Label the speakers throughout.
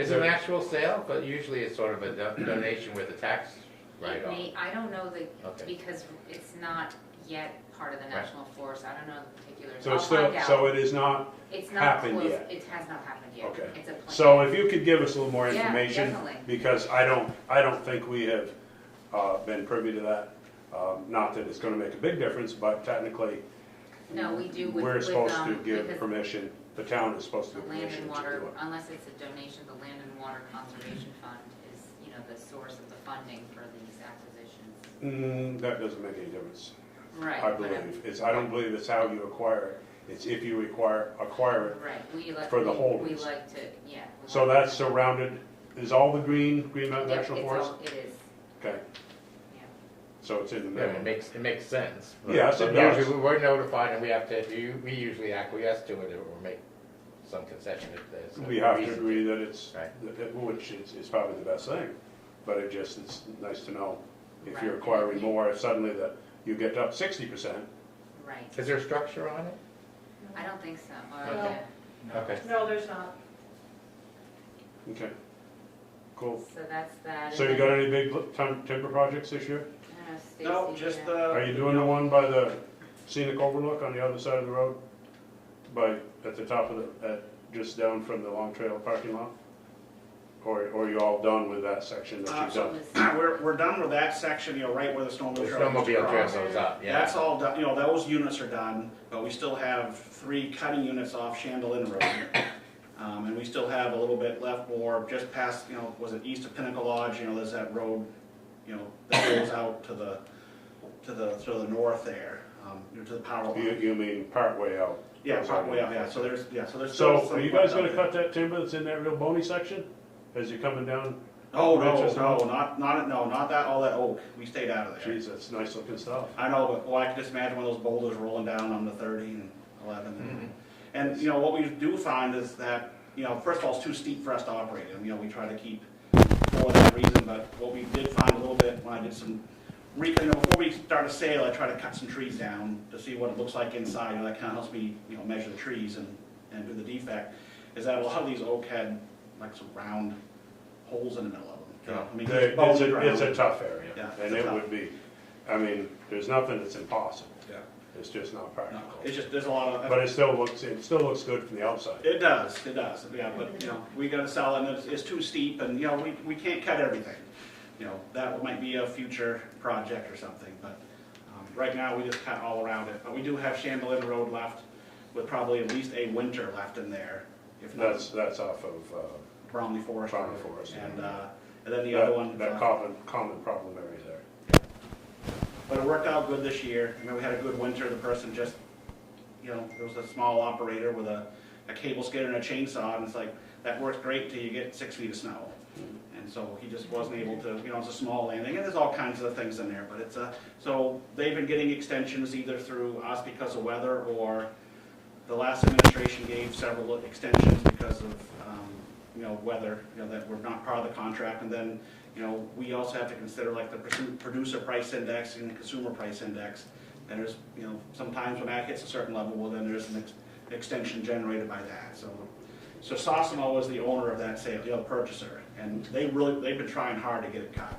Speaker 1: Is it an actual sale? But usually it's sort of a do- donation with a tax
Speaker 2: It
Speaker 1: write-off.
Speaker 2: may- I don't know the,
Speaker 1: Okay.
Speaker 2: because it's not yet part of the
Speaker 1: Right.
Speaker 2: national forest, I don't know the particulars,
Speaker 3: So
Speaker 2: I'll
Speaker 3: it's still,
Speaker 2: find out.
Speaker 3: so it is not,
Speaker 2: It's not
Speaker 3: happened
Speaker 2: close,
Speaker 3: yet.
Speaker 2: it has not happened yet.
Speaker 3: Okay.
Speaker 2: It's a plan.
Speaker 3: so if you could give us a little more
Speaker 2: Yeah,
Speaker 3: information,
Speaker 2: definitely.
Speaker 3: because I don't, I don't think we have, uh, been privy to that. Um, not that it's gonna make a big difference, but technically,
Speaker 2: No, we do with,
Speaker 3: we're
Speaker 2: with,
Speaker 3: supposed to
Speaker 2: um,
Speaker 3: give
Speaker 2: because
Speaker 3: permission, the town is supposed to
Speaker 2: the
Speaker 3: give
Speaker 2: land
Speaker 3: permission
Speaker 2: and
Speaker 3: to do
Speaker 2: water,
Speaker 3: it.
Speaker 2: unless it's a donation, the land and water conservation fund is, you know, the source of the funding for these acquisitions.
Speaker 3: Mm, that doesn't make any difference,
Speaker 2: Right.
Speaker 3: I
Speaker 2: but, um,
Speaker 3: believe. It's, I don't believe it's how you acquire it, it's if you acquire, acquire it.
Speaker 2: Right, we like.
Speaker 3: for the
Speaker 2: we-
Speaker 3: holdings.
Speaker 2: We like to, yeah. we
Speaker 3: So
Speaker 2: like-
Speaker 3: that's surrounded, is all the green, Green Mountain
Speaker 2: Yep,
Speaker 3: National
Speaker 2: it's
Speaker 3: Forest?
Speaker 2: all- It is,
Speaker 3: Okay,
Speaker 2: yeah.
Speaker 3: so it's in the
Speaker 1: Yeah,
Speaker 3: middle.
Speaker 1: It makes, it makes sense. but-
Speaker 3: Yes, it
Speaker 1: but
Speaker 3: does.
Speaker 1: Usually we're notified and we have to, you- we usually acquiesce to it or make some concession if there's. a
Speaker 3: We have to
Speaker 1: reason
Speaker 3: agree that it's,
Speaker 1: Right.
Speaker 3: that- that- which is, is probably the best thing, but it just, it's nice to know if you're
Speaker 2: Right.
Speaker 3: acquiring more, if suddenly that you get up sixty percent.
Speaker 2: Right,
Speaker 1: Is there a structure on it?
Speaker 2: I don't think so, or,
Speaker 1: No.
Speaker 2: yeah,
Speaker 1: Okay.
Speaker 4: No, there's not.
Speaker 3: Okay, cool.
Speaker 2: so that's that. Uh,
Speaker 3: So you got any big li- tim- timber projects this year?
Speaker 5: No, just
Speaker 2: the.
Speaker 3: Are you
Speaker 5: the,
Speaker 3: doing the one by the scenic overlook on the other side of the road? By, at the top of the, at, just down from the Long Trail parking lot? Or, or are you all done with that section that you've done?
Speaker 5: ah, we're, we're done with that section, you know, right where the
Speaker 1: The
Speaker 5: snowmobile trail used to
Speaker 1: snowmobile trail
Speaker 5: cross.
Speaker 1: goes up, yeah.
Speaker 5: That's all done, you know, those units are done, but we still have three cutting units off Chandelin Road. Um, and we still have a little bit left more, just past, you know, was it east of Pinnacle Lodge, you know, there's that road, you know, that goes out to the, to the, to the north there, um, you know, to the power
Speaker 3: You,
Speaker 5: line.
Speaker 3: you mean partway out?
Speaker 5: Yeah, partway up, yeah, so there's, yeah, so there's still
Speaker 3: So
Speaker 5: some.
Speaker 3: are you guys
Speaker 5: left out
Speaker 3: gonna
Speaker 5: there.
Speaker 3: cut that timber that's in that real bony section as you're coming down?
Speaker 5: Oh, no,
Speaker 3: branches
Speaker 5: no,
Speaker 3: out?
Speaker 5: not, not, no, not that, all that oak, we stayed out of there.
Speaker 3: Geez, that's nice looking stuff.
Speaker 5: I know, but boy, I can just imagine one of those boulders rolling down on the thirty and
Speaker 3: Mm-hmm.
Speaker 5: eleven. And, you know, what we do find is that, you know, first of all, it's too steep for us to operate in, you know, we try to keep for that reason, but what we did find a little bit, when I did some, re- you know, before we start a sale, I try to cut some trees down to see what it looks like inside, you know, that kinda helps me, you know, measure the trees and, and do the defect, is that a lot of these oak had like some round holes in the middle of them. you know, I mean,
Speaker 3: They- It's
Speaker 5: bones
Speaker 3: a,
Speaker 5: around.
Speaker 3: it's a tough area.
Speaker 5: Yeah, it's
Speaker 3: And
Speaker 5: a
Speaker 3: it
Speaker 5: tough-
Speaker 3: would be, I mean, there's nothing that's impossible.
Speaker 5: Yeah.
Speaker 3: It's just not
Speaker 5: No,
Speaker 3: practical.
Speaker 5: It's just, there's a lot of.
Speaker 3: But it still looks, it still looks good from the outside.
Speaker 5: It does, it does, yeah, but, you know, we gotta sell it, and it's, it's too steep, and, you know, we, we can't cut everything. You know, that might be a future project or something, but, um, right now, we just cut all around it. But we do have Chandelin Road left, with probably at least a winter left in there, if
Speaker 3: That's,
Speaker 5: not
Speaker 3: that's off of, uh,
Speaker 5: Bromley Forest.
Speaker 3: Bromley Forest, yeah.
Speaker 5: And, uh, and then the other
Speaker 3: that,
Speaker 5: one.
Speaker 3: that
Speaker 5: uh,
Speaker 3: common, common problem area there.
Speaker 5: But it worked out good this year. I mean, we had a good winter. The person just, you know, there was a small operator with a, a cable skidder and a chainsaw, and it's like, that works great till you get six feet of snow. And so he just wasn't able to, you know, it's a small landing, and there's all kinds of things in there, but it's a, so they've been getting extensions either through us because of weather, or the last administration gave several extensions because of, um, you know, weather, you know, that were not part of the contract. And then, you know, we also have to consider like the pursu- producer price index and the consumer price index. And there's, you know, sometimes when that hits a certain level, well, then there's an ex- extension generated by that, so. So Sosimo was the owner of that sale, the other purchaser, and they really, they've been trying hard to get it cut.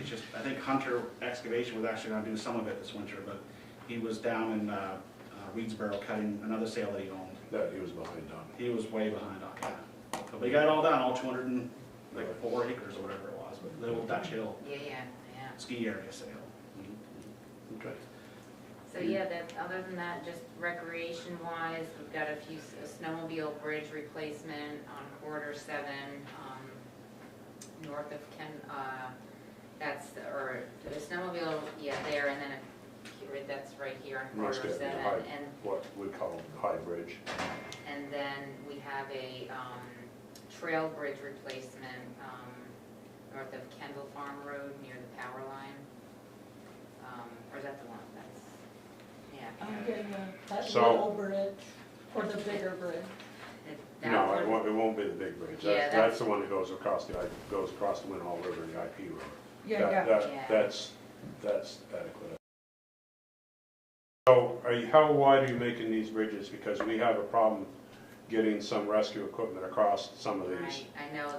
Speaker 5: It's just, I think Hunter Excavation was actually gonna do some of it this winter, but he was down in, uh, uh, Reedsboro cutting another sale that he owned.
Speaker 3: That he was behind on.
Speaker 5: He was way behind on that. But they got it all done, all two hundred and, like, four acres or whatever it was, but little Dutch Hill
Speaker 2: Yeah, yeah, yeah.
Speaker 5: ski area sale. Mm-hmm.
Speaker 3: Okay.
Speaker 2: So yeah, that, other than that, just recreation wise, we've got a few, s- a snowmobile bridge replacement on quarter seven, um, north of Ken, uh, that's, the- or the snowmobile, yeah, there, and then a, period that's right here on
Speaker 3: Must get
Speaker 2: quarter
Speaker 3: the
Speaker 2: seven.
Speaker 3: high,
Speaker 2: And,
Speaker 3: what we call high bridge.
Speaker 2: and then we have a, um, trail bridge replacement, um, north of Kendall Farm Road near the power line. Um, or is that the one that's, yeah.
Speaker 4: I'm getting the, that
Speaker 3: So-
Speaker 4: little bridge or the bigger bridge.
Speaker 2: That- that
Speaker 3: No,
Speaker 2: one-
Speaker 3: it won't, it won't be the big bridge.
Speaker 2: Yeah,
Speaker 3: That's,
Speaker 2: that's-
Speaker 3: that's the one that goes across the, I- goes across the Winhall River, the IP road.
Speaker 4: Yeah,
Speaker 3: That-
Speaker 4: yeah.
Speaker 3: that-
Speaker 2: Yeah.
Speaker 3: That's, that's adequate. So are you, how wide are you making these bridges? Because we have a problem getting some rescue equipment across some of these.
Speaker 2: Right, I know